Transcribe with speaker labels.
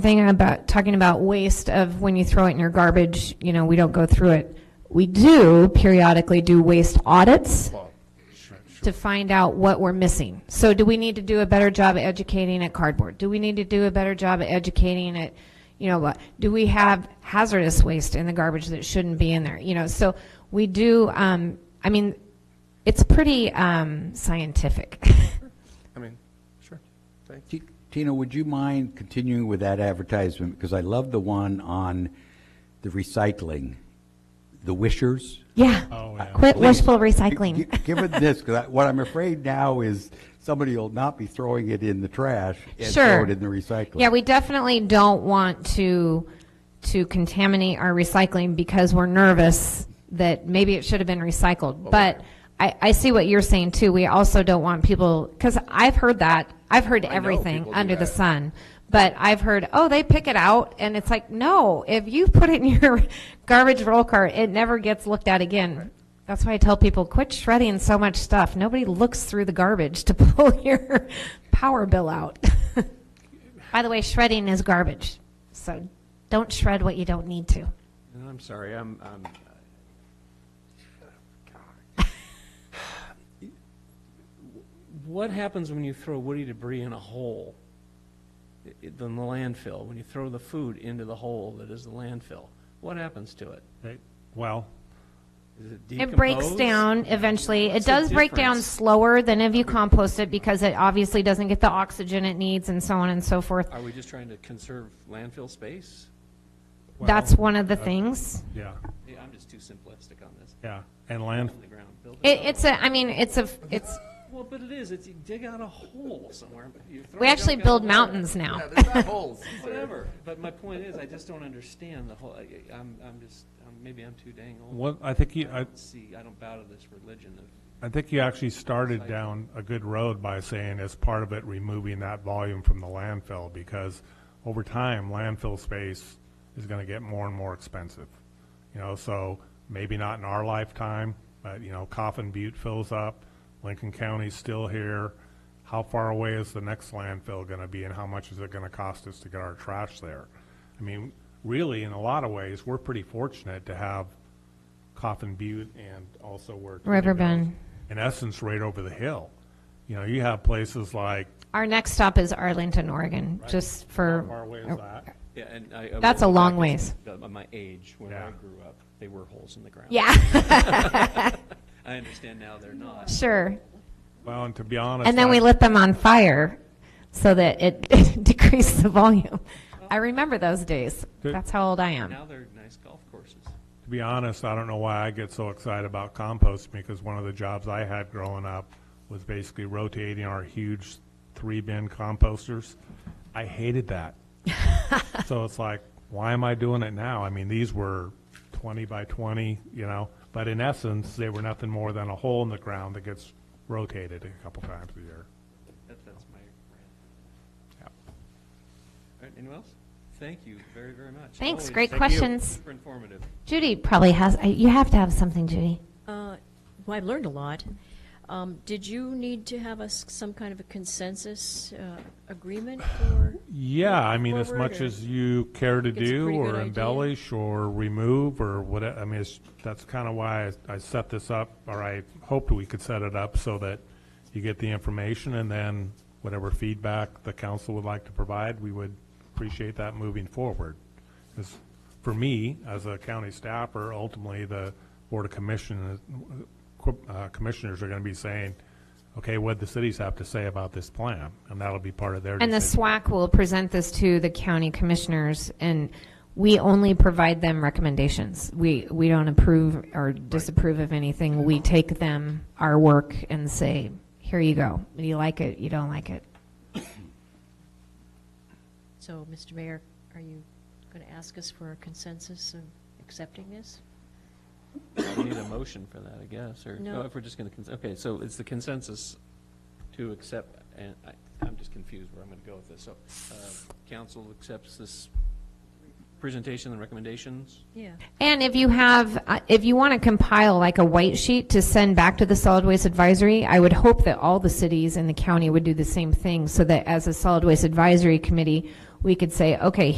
Speaker 1: Thing about, talking about waste of when you throw it in your garbage, you know, we don't go through it. We do periodically do waste audits to find out what we're missing. So do we need to do a better job at educating at cardboard? Do we need to do a better job at educating at, you know, what? Do we have hazardous waste in the garbage that shouldn't be in there? You know, so we do, um, I mean, it's pretty, um, scientific.
Speaker 2: I mean, sure. Thank
Speaker 3: Ti- Tina, would you mind continuing with that advertisement? Because I love the one on the recycling, the wishers.
Speaker 1: Yeah.
Speaker 4: Oh, yeah.
Speaker 1: Quit
Speaker 3: Please.
Speaker 1: wishful
Speaker 3: Gi-
Speaker 1: recycling.
Speaker 3: Give it this, because what I'm afraid now is somebody will not be throwing it in the trash and
Speaker 1: Sure.
Speaker 3: throw it in the recycling.
Speaker 1: Yeah, we definitely don't want to, to contaminate our recycling because we're nervous that maybe it should have been recycled. But I, I see what you're saying too. We also don't want people, because I've heard that. I've heard
Speaker 2: know
Speaker 1: everything
Speaker 2: people do
Speaker 1: under the
Speaker 2: that.
Speaker 1: sun. But I've heard, oh, they pick it out and it's like, no, if you put it in your garbage roll cart, it never gets looked at again. That's why I tell people, quit shredding so much stuff. Nobody looks through the garbage to pull your power bill out. By the way, shredding is garbage. So don't shred what you don't need to.
Speaker 2: And I'm sorry, I'm, I'm.
Speaker 4: uh, What happens when you throw woody debris in a hole, i- i- than the landfill, when you throw the food into the hole that is the landfill? What happens to it?
Speaker 5: Right. Well,
Speaker 4: Is it
Speaker 1: It breaks
Speaker 4: decompose?
Speaker 1: down eventually. It
Speaker 4: What's the
Speaker 1: does break down
Speaker 4: difference?
Speaker 1: slower than if you compost it because it obviously doesn't get the oxygen it needs and so on and so forth.
Speaker 4: Are we just trying to conserve landfill space?
Speaker 1: That's one of the things.
Speaker 5: yeah,
Speaker 4: Yeah, I'm just too simplistic on this.
Speaker 5: yeah. And land,
Speaker 4: On the ground, build it
Speaker 1: It,
Speaker 4: up.
Speaker 1: it's a, I mean, it's a, it's,
Speaker 4: Well, but it is, it's, you dig out a hole somewhere. but you throw
Speaker 1: we actually
Speaker 4: junk out of
Speaker 1: build
Speaker 4: the
Speaker 1: mountains now.
Speaker 2: there's not holes.
Speaker 4: Whatever, but my point is, I just don't understand the whole, I- I'm, I'm just, I'm- maybe I'm too dang old.
Speaker 5: what, I think you,
Speaker 4: I
Speaker 5: I,
Speaker 4: don't see, I don't bow to this religion of
Speaker 5: I think you actually started down a good road by saying as part of it, removing that volume from the landfill, because over time, landfill space is gonna get more and more expensive. You know, so maybe not in our lifetime, but, you know, Coffin Butte fills up, Lincoln County's still here. How far away is the next landfill gonna be, and how much is it gonna cost us to get our trash there? I mean, really, in a lot of ways, we're pretty fortunate to have Coffin Butte and also where. Tony
Speaker 1: River
Speaker 5: goes,
Speaker 1: Bend.
Speaker 5: In essence, right over the hill. You know, you have places like,
Speaker 1: Our next stop is Arlington, Oregon, just
Speaker 5: how far
Speaker 1: for,
Speaker 5: away is that?
Speaker 4: Yeah, and I. I
Speaker 1: That's
Speaker 4: will
Speaker 1: a
Speaker 4: go
Speaker 1: long
Speaker 4: back
Speaker 1: ways.
Speaker 4: into the- uh, My age, when I
Speaker 5: Yeah.
Speaker 4: grew up, they were holes in the ground.
Speaker 1: yeah,
Speaker 4: I understand now they're not.
Speaker 1: sure.
Speaker 5: Well, and to be honest.
Speaker 1: And then we
Speaker 5: I-
Speaker 1: lit them on fire so that it decreased the volume. I remember those days.
Speaker 5: Good.
Speaker 1: That's how old I am.
Speaker 4: Now they're nice golf courses.
Speaker 5: To be honest, I don't know why I get so excited about composting because one of the jobs I had growing up was basically rotating our huge three bin composters. I hated that. so it's like, why am I doing it now? I mean, these were 20 by 20, you know, but in essence, they were nothing more than a hole in the ground that gets rotated a couple times a year.
Speaker 4: That, that's my rant.
Speaker 5: Yep.
Speaker 4: All right, anyone else? Thank you very, very much.
Speaker 1: Thanks,
Speaker 4: Always
Speaker 1: great questions.
Speaker 4: Super informative.
Speaker 1: Judy probably has, I- you have to have something, Judy.
Speaker 6: Uh, Well, I've learned a lot. Um, Did you need to have us some kind of a consensus uh, agreement for?
Speaker 5: Yeah, I mean, as
Speaker 6: forward,
Speaker 5: much
Speaker 6: or-
Speaker 5: as you care to
Speaker 6: Think it's a
Speaker 5: do
Speaker 6: pretty good
Speaker 5: or
Speaker 6: idea.
Speaker 5: embellish or remove or whatever, I mean, it's, that's kind of why I- I set this up, or I hoped we could set it up so that you get the information and then whatever feedback the council would like to provide, we would appreciate that moving forward. 'Cause for me, as a county staffer, ultimately, the Board of Commissioners, uh, Commissioners are going to be saying, okay, what the cities have to say about this plan? And that'll be part of their
Speaker 1: And the
Speaker 5: decision.
Speaker 1: SWAC will present this to the county commissioners, and we only provide them recommendations. We, we don't approve or disapprove of anything. We take them, our work, and say, here you go. Do you like it? You don't like it?
Speaker 6: So, Mr. Mayor, are you going to ask us for a consensus of accepting this?
Speaker 4: We need a motion for that, I guess, or,
Speaker 6: No.
Speaker 4: oh, if we're just gonna, cons- okay, so it's the consensus to accept, and I, I'm just confused where I'm gonna go with this. So, uh, council accepts this presentation and recommendations?
Speaker 6: Yeah.
Speaker 1: And if you have, uh, if you want to compile like a white sheet to send back to the solid waste advisory, I would hope that all the cities in the county would do the same thing so that as a solid waste advisory committee, we could say, okay,